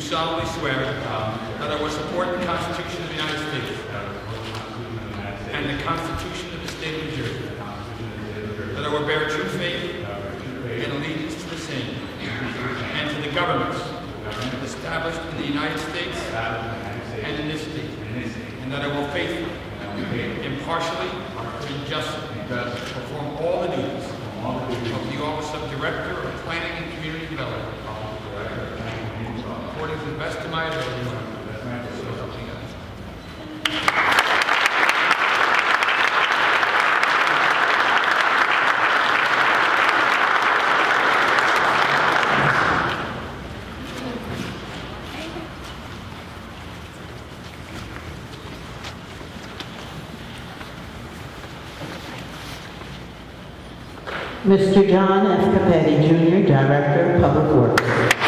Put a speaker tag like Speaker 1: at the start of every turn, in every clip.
Speaker 1: solemnly swear um, that I will support the Constitution of the United States and the Constitution of the State of New Jersey, that I will bear true faith and allegiance to the same and to the governments established in the United States and in this state, and that I will faithfully, impartially, and justly perform all the duties of the office of Director of Planning and Community Development according to the best of my ability. So help me God.
Speaker 2: Mr. John F. Capetti Jr., Director of Public Works.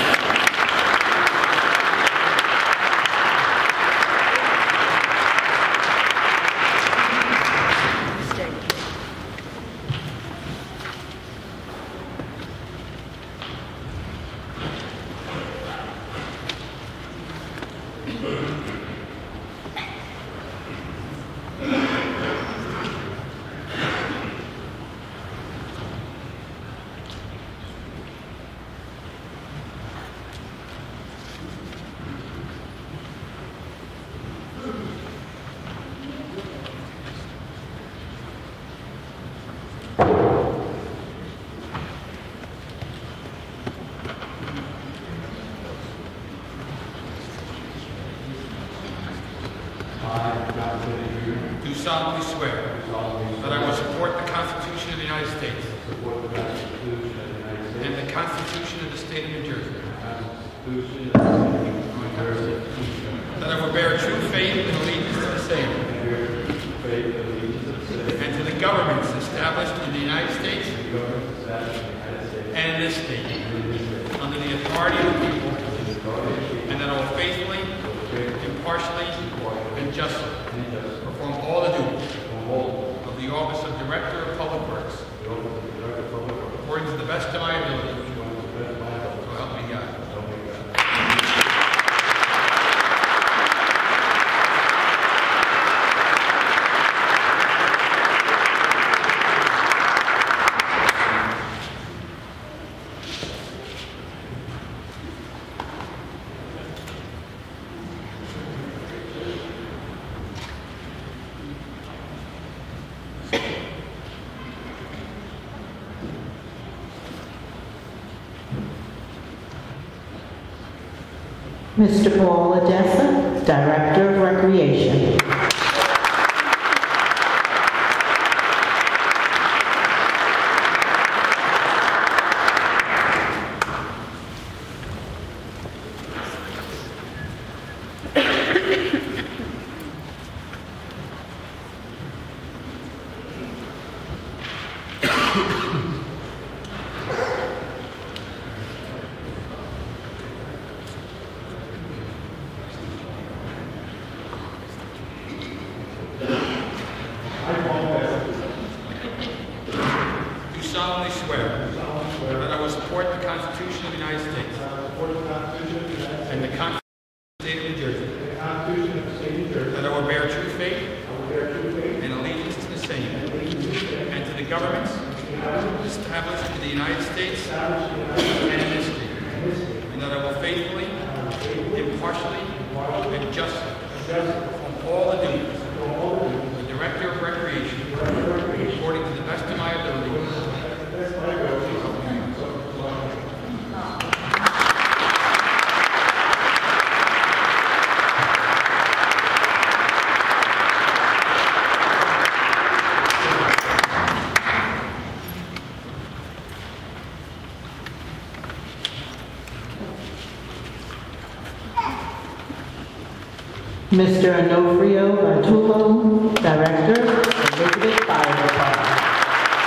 Speaker 3: I, John Kennedy
Speaker 1: Do solemnly swear
Speaker 3: Jr., solemnly
Speaker 1: that I will support the Constitution of the United States
Speaker 3: support the Constitution of the United States
Speaker 1: and the Constitution of the State of New Jersey,
Speaker 3: and the Constitution of the State of New Jersey,
Speaker 1: that I will bear true faith and allegiance to the same
Speaker 3: and bear true faith and allegiance to the same
Speaker 1: and to the governments established in the United States
Speaker 3: and the government established in the United States
Speaker 1: and in this state
Speaker 3: and in this state,
Speaker 1: under the authority of the people,
Speaker 3: and the authority of the people,
Speaker 1: and that I will faithfully,
Speaker 3: faithfully,
Speaker 1: impartially, and justly
Speaker 3: and justly
Speaker 1: perform all the duties
Speaker 3: uphold
Speaker 1: of the office of Director of Public Works
Speaker 3: the oath of the Director of Public Works,
Speaker 1: according to the best of my ability.
Speaker 3: which one is the best of my ability,
Speaker 1: So help me God.
Speaker 3: so help me God.
Speaker 2: Mr. Paul Odessa, Director of Recreation.
Speaker 1: Do solemnly swear that I will support the Constitution of the United States and the Constitution of the State of New Jersey, that I will bear true faith and allegiance to the same and to the governments established in the United States and in this state, and that I will faithfully, impartially, and justly perform all the duties of the Director of Recreation according to the best of my ability.
Speaker 2: Mr. Onofrio Vantulo, Director of Elizabeth Fire Department.